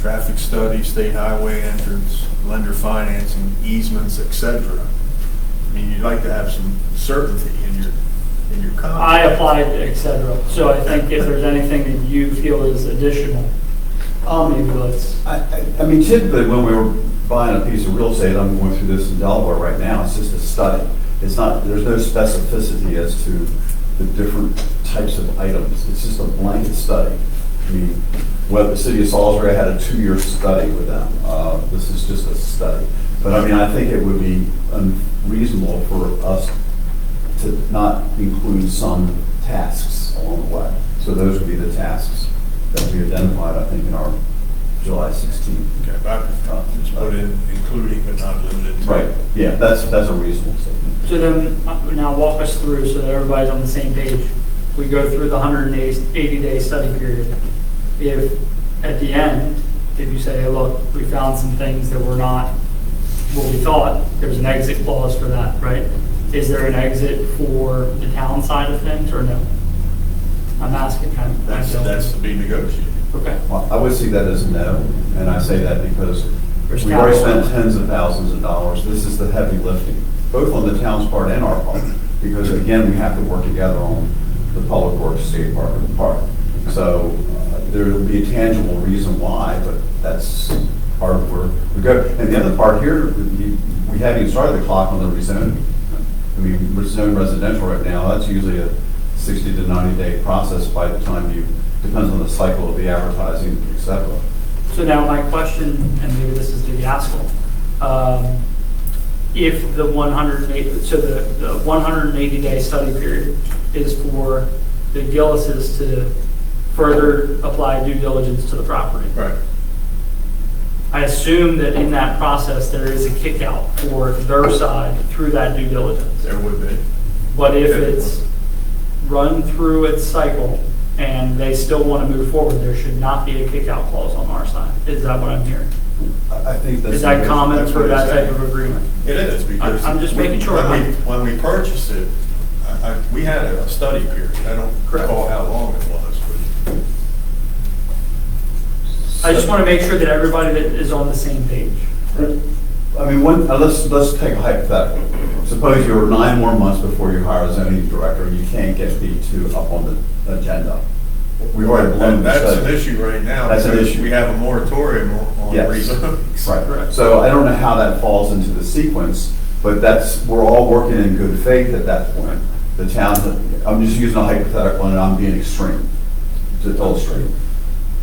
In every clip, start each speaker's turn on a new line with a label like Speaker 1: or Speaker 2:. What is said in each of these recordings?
Speaker 1: traffic study, state highway entrance, lender financing, easements, et cetera. I mean, you'd like to have some certainty in your, in your contract.
Speaker 2: I applied, et cetera. So I think if there's anything that you feel is additional, um, maybe let's,
Speaker 3: I, I- I mean, typically, when we were buying a piece of real estate, I'm going through this in Delaware right now, it's just a study. It's not, there's no specificity as to the different types of items, it's just a blanket study. I mean, well, the city of Salisbury had a two-year study with them, uh, this is just a study. But I mean, I think it would be unreasonable for us to not include some tasks along the way. So those would be the tasks that we identified, I think, in our July 16th.
Speaker 1: Okay, but I prefer to just put in including but not limited to.
Speaker 3: Right, yeah, that's, that's a reasonable statement.
Speaker 2: so then, uh, now walk us through so that everybody's on the same page. We go through the 180-day study period. If, at the end, if you say, hey, look, we found some things that were not what we thought, there's an exit clause for that, right? Is there an exit for the town side of things, or no? I'm asking kind of.
Speaker 1: That's, that's to be negotiated.
Speaker 2: Okay.
Speaker 3: Well, I would see that as a no, and I say that because
Speaker 2: There's
Speaker 3: we've already
Speaker 2: capital.
Speaker 3: spent tens of thousands of dollars. This is the heavy lifting, both on the town's part and our part, because again, we have to work together on the public works, state park, and the park. So uh, there'll be a tangible reason why, but that's part of where we go. And the other part here, we we haven't even started the clock on the rezoning. I mean, we're zoned residential right now, that's usually a 60 to 90 day process by the time you, depends on the cycle of the advertising, et cetera.
Speaker 2: So now my question, and maybe this is to Gaskell, um, if the 180, so the 180-day study period is for the Gillises to further apply due diligence to the property.
Speaker 1: Right.
Speaker 2: I assume that in that process, there is a kickout for their side through that due diligence.
Speaker 1: There would be.
Speaker 2: But if it's run through its cycle and they still want to move forward, there should not be a kickout clause on our side. Is that what I'm hearing?
Speaker 3: I I think that's.
Speaker 2: Is that common
Speaker 1: that's
Speaker 2: for
Speaker 1: what
Speaker 2: that
Speaker 1: it's
Speaker 2: type
Speaker 1: saying.
Speaker 2: of agreement?
Speaker 1: It is because.
Speaker 2: I'm just making sure.
Speaker 1: When we, when we purchased it, I, I, we had a study period. I don't
Speaker 2: Correct.
Speaker 1: recall how long it was, but
Speaker 2: I just want to make sure that everybody that is on the same page.
Speaker 3: I mean, one, uh, let's, let's take a hypothetical. Suppose you're nine more months before you hire a zoning director, and you can't get B two up on the agenda. We've already blown
Speaker 1: And
Speaker 3: the
Speaker 1: that's an
Speaker 3: study.
Speaker 1: issue right now.
Speaker 3: That's an
Speaker 1: because
Speaker 3: issue.
Speaker 1: We have a moratorium on on
Speaker 3: Yes.
Speaker 1: rezonings.
Speaker 3: Right, so I don't know how that falls into the sequence, but that's, we're all working in good faith at that point. The town, I'm just using a hypothetical and I'm being extreme to illustrate.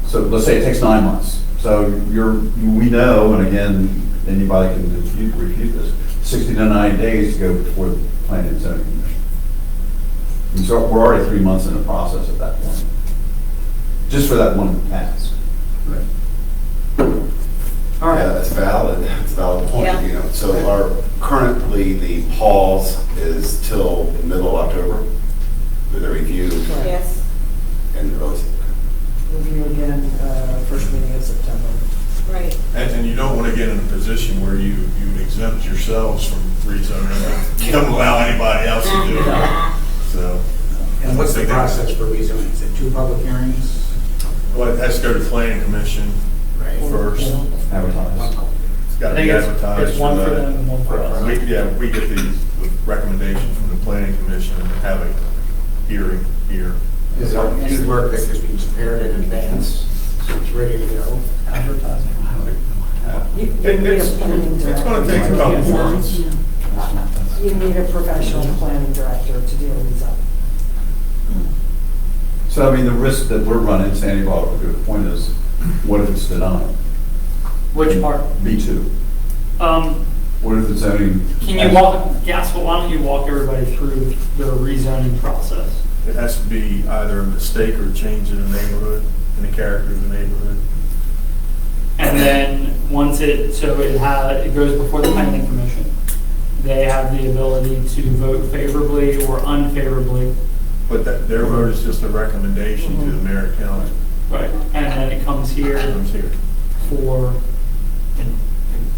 Speaker 3: So let's say it takes nine months. So you're, we know, and again, anybody can refute, refute this, sixty to ninety days to go before the planning and zoning commission. And so we're already three months in the process at that point, just for that one task.
Speaker 2: All
Speaker 4: Yeah,
Speaker 2: right,
Speaker 4: that's valid, that's a valid
Speaker 5: Yeah.
Speaker 4: point, you know, so our, currently, the pause is till middle of October for the review
Speaker 5: Yes.
Speaker 4: and the release.
Speaker 6: Review again, uh, first meeting in September.
Speaker 5: Right.
Speaker 1: And, and you don't want to get in a position where you, you exempt yourselves from rezoning. You don't allow anybody else to do it. So,
Speaker 7: And what's the process for rezoning? Is it two public hearings?
Speaker 1: well, it has to go to planning commission first.
Speaker 3: Advertise.
Speaker 7: One public hearing.
Speaker 1: It's got
Speaker 2: I
Speaker 1: to
Speaker 2: think
Speaker 1: be
Speaker 2: it's,
Speaker 1: advertised. uh,
Speaker 2: it's one for them and one for
Speaker 1: And
Speaker 2: us.
Speaker 1: We, yeah, we get these recommendations from the planning commission and have a hearing here.
Speaker 7: Is there any work that has been prepared in advance, so it's ready to go?
Speaker 3: Advertising.
Speaker 6: You- you
Speaker 1: It-
Speaker 6: need a
Speaker 1: it's-
Speaker 6: planning
Speaker 1: it's gonna
Speaker 6: director.
Speaker 1: take a couple
Speaker 6: Yeah.
Speaker 1: months.
Speaker 6: You need a professional planning director to deal with that.
Speaker 3: So I mean, the risk that we're running, Sandy brought up a good point, is what if it's denied?
Speaker 2: Which part?
Speaker 3: B two.
Speaker 2: Um,
Speaker 3: What if the zoning?
Speaker 2: can you walk, Gaskell, why don't you walk everybody through the rezoning process?
Speaker 1: It has to be either a mistake or a change in the neighborhood, in the character of the neighborhood.
Speaker 2: And then, once it, so it ha it goes before the planning commission. They have the ability to vote favorably or unfavorably,
Speaker 1: But that, their vote is just a recommendation to the mayor and council.
Speaker 2: right? And then it comes here
Speaker 1: Comes here.
Speaker 2: for,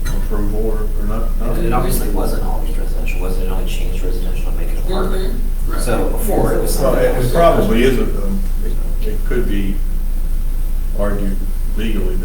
Speaker 1: Approval or, or not? not-
Speaker 8: It obviously wasn't always residential, wasn't it only changed residential to make it apartment? So before it was
Speaker 1: Well,
Speaker 8: something
Speaker 1: it
Speaker 8: else.
Speaker 1: it probably is, a- um, it could be argued legally